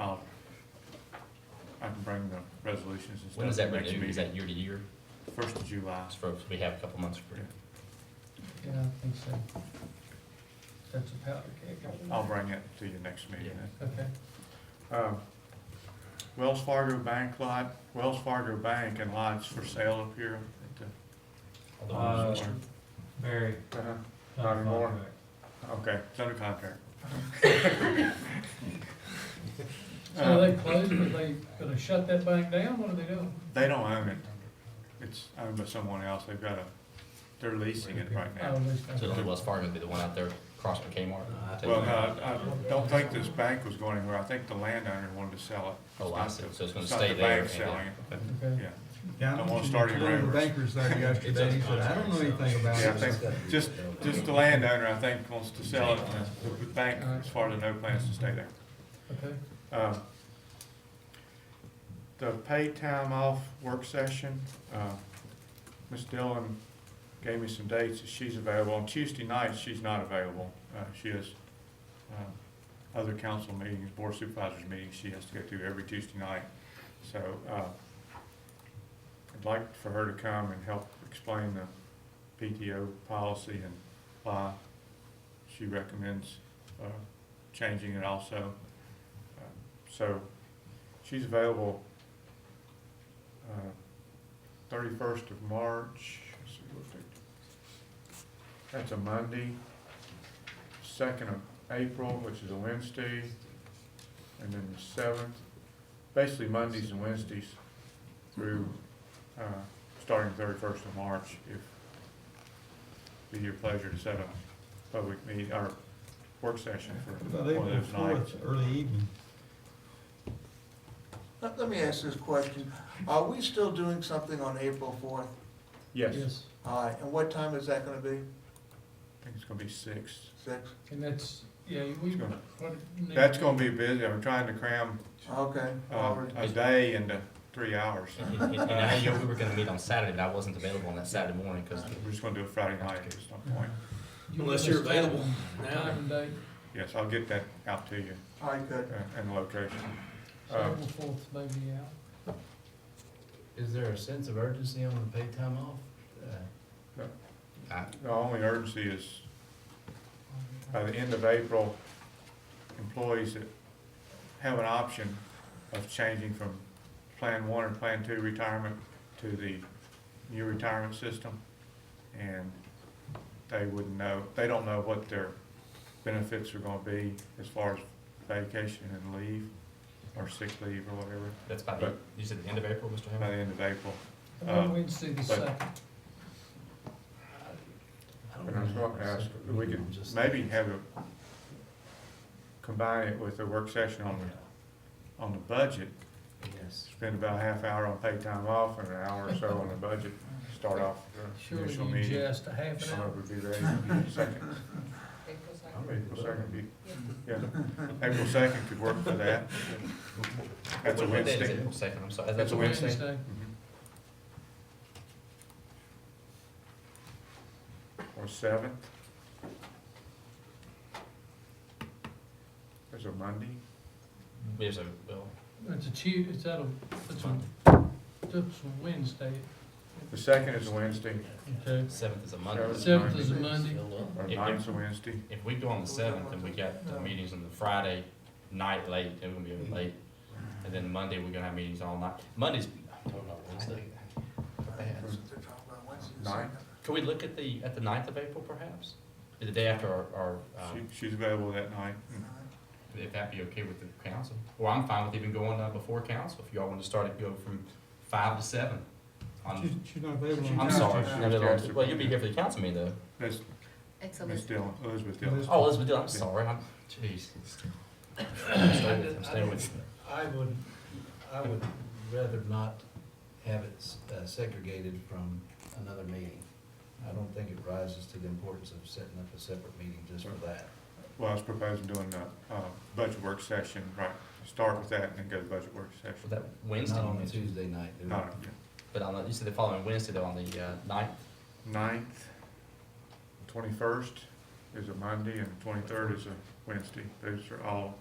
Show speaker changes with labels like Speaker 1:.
Speaker 1: Oh. resolutions and stuff.
Speaker 2: When is that
Speaker 1: next
Speaker 2: renewed? Is
Speaker 1: meeting.
Speaker 2: that year to year?
Speaker 1: First of July.
Speaker 2: That's for, we have a couple months for it.
Speaker 3: Yeah, I think so. That's a powder keg.
Speaker 1: I'll bring it to you next meeting. then.
Speaker 3: Okay.
Speaker 1: Uh, Wells Fargo Bank lot, Wells Fargo Bank and lots for sale up here.
Speaker 2: Although I'm
Speaker 4: Uh,
Speaker 2: sure-
Speaker 4: Very.
Speaker 1: at the- Uh-huh. Not anymore. Okay, it's under contract.
Speaker 3: So they
Speaker 1: Uh,
Speaker 3: closed, are they gonna shut that bank down, what are they doing?
Speaker 1: They don't own it. It's owned by someone else. They've got a, they're leasing it right
Speaker 3: Oh,
Speaker 1: now.
Speaker 3: at least
Speaker 2: So
Speaker 3: not.
Speaker 2: the Wells Fargo would be the one out there across from Kmart?
Speaker 5: Uh,
Speaker 1: Well, uh, no, I I don't think this bank was going anywhere. I think the landowner wanted to sell it.
Speaker 2: Oh, I see. So it's gonna
Speaker 1: not
Speaker 2: stay
Speaker 1: the
Speaker 2: there. uh,
Speaker 1: bank selling it.
Speaker 3: Okay.
Speaker 1: Yeah,
Speaker 6: Yeah,
Speaker 1: Don't
Speaker 6: I
Speaker 1: want
Speaker 6: want
Speaker 1: to
Speaker 6: you
Speaker 1: start
Speaker 6: to
Speaker 1: any
Speaker 6: tell the
Speaker 1: rumors.
Speaker 6: bankers that yesterday, he said, I don't know anything about
Speaker 1: yeah, I
Speaker 6: it.
Speaker 1: think, just, just the landowner, I think, wants to sell it, and the bank, as far as I know, plans to stay there.
Speaker 3: Okay,
Speaker 1: Uh, The paid time off work session, uh, Ms. Dillon gave me some dates that she's available. On Tuesday night, she's not available. Uh, She has uh, other council meetings, board supervisors meetings she has to go to every Tuesday night. So uh, I'd like for her to come and help explain the PTO policy and why she recommends uh, changing it also. Uh, So she's available uh, thirty-first of March. Let's see, what date? That's a Monday. Second of April, which is a Wednesday, and then the seventh. Basically Mondays and Wednesdays through, uh, starting thirty-first of March, if be your pleasure to set up a public meet, or work session for
Speaker 6: About
Speaker 1: one of
Speaker 6: April
Speaker 1: those nights.
Speaker 6: fourth, early evening.
Speaker 7: Let, let me ask this question. Are we still doing something on April fourth?
Speaker 1: Yes.
Speaker 3: yes,
Speaker 7: All right, and what time is that gonna be?
Speaker 1: I think it's gonna be six.
Speaker 7: Six?
Speaker 3: and that's, yeah,
Speaker 1: It's
Speaker 3: we.
Speaker 1: gonna-
Speaker 3: what- need-
Speaker 1: That's gonna be busy, I'm trying to cram,
Speaker 7: Okay,
Speaker 1: uh,
Speaker 7: Robert.
Speaker 1: a day into three hours.
Speaker 2: And- and- and I know we were gonna meet on Saturday, but I wasn't available on that Saturday morning, cause
Speaker 1: We're just gonna do a Friday night at some point.
Speaker 3: You
Speaker 4: Unless
Speaker 3: give us
Speaker 4: you're available
Speaker 3: time-
Speaker 4: now.
Speaker 3: Time and date,
Speaker 1: Yes, I'll get that out to you,
Speaker 7: All right,
Speaker 1: uh,
Speaker 7: good.
Speaker 1: and the location.
Speaker 3: so
Speaker 1: Uh,
Speaker 3: April fourth maybe out.
Speaker 5: Is there a sense of urgency on the paid time off? Uh,
Speaker 2: I,
Speaker 1: The only urgency is by the end of April, employees that have an option of changing from Plan One or Plan Two retirement to the new retirement system. And they wouldn't know, they don't know what their benefits are gonna be as far as vacation and leave, or sick leave or whatever,
Speaker 2: that's by the, you said the end of April, Mr.
Speaker 1: by
Speaker 2: Hammond?
Speaker 1: the end of April.
Speaker 3: On Wednesday the
Speaker 1: but-
Speaker 3: second,
Speaker 5: I don't
Speaker 1: And I was
Speaker 5: know.
Speaker 1: gonna ask, we could maybe have a, combine it with a work session on, the on the budget,
Speaker 5: Yes.
Speaker 1: spend about a half hour on paid time off and an hour or so on the budget, start off the
Speaker 3: surely
Speaker 1: initial
Speaker 3: you
Speaker 1: meeting.
Speaker 3: just a half an
Speaker 1: Some
Speaker 3: hour.
Speaker 1: of it would be ready in a second,
Speaker 5: I'm ready to
Speaker 1: April
Speaker 5: vote.
Speaker 1: second, be- yeah, April second could work for that. That's a
Speaker 2: What- what day is Mm-hmm.
Speaker 1: Wednesday.
Speaker 2: April second, I'm sorry.
Speaker 1: That's a Wednesday. Or seventh. There's a Monday,
Speaker 2: There's a, well,
Speaker 3: It's a Tuesday, it's out of, it's a, it's a Wednesday,
Speaker 1: the second is a Wednesday,
Speaker 3: okay.
Speaker 2: seventh is a Monday.
Speaker 3: Seventh is a Monday,
Speaker 1: or
Speaker 2: If- if-
Speaker 1: ninth's a Wednesday.
Speaker 2: If we go on the seventh and we got the meetings on the Friday night late, then we're gonna be late. And then Monday, we're gonna have meetings all night. Monday's, I don't know, Wednesday.
Speaker 7: They're talking about Wednesday, the
Speaker 1: Nine.
Speaker 7: second.
Speaker 2: Could we look at the, at the ninth of April perhaps? The day after our, our, um,
Speaker 1: She, she's available that night.
Speaker 2: if that'd be okay with the council. Or I'm fine with even going uh, before council, if y'all want to start it, go from five to seven.
Speaker 6: She's,
Speaker 2: on-
Speaker 6: she's not available on
Speaker 2: I'm
Speaker 6: Tuesday.
Speaker 2: sorry,
Speaker 1: Tuesday.
Speaker 2: No, no, no. well, you'll be here for the council meeting though.
Speaker 1: That's
Speaker 8: It's
Speaker 1: Ms.
Speaker 8: Elizabeth.
Speaker 1: Dillon, Elizabeth Dillon.
Speaker 2: Oh, Elizabeth Dillon, I'm sorry, I'm, jeez. I'm staying with- I'm staying with,
Speaker 5: I would, I would rather not have it s- uh, segregated from another meeting. I don't think it rises to the importance of setting up a separate meeting just for that.
Speaker 1: Well, I was proposing doing a, uh budget work session, right, start with that and then go to budget work
Speaker 2: for
Speaker 1: session.
Speaker 2: that Wednesday,
Speaker 5: Not on a
Speaker 2: meeting.
Speaker 5: Tuesday night. do it.
Speaker 1: Not, yeah.
Speaker 2: but on the, you said the following Wednesday though, on the, uh, ninth?
Speaker 1: Ninth, twenty-first is a Monday, and twenty-third is a Wednesday. Those are all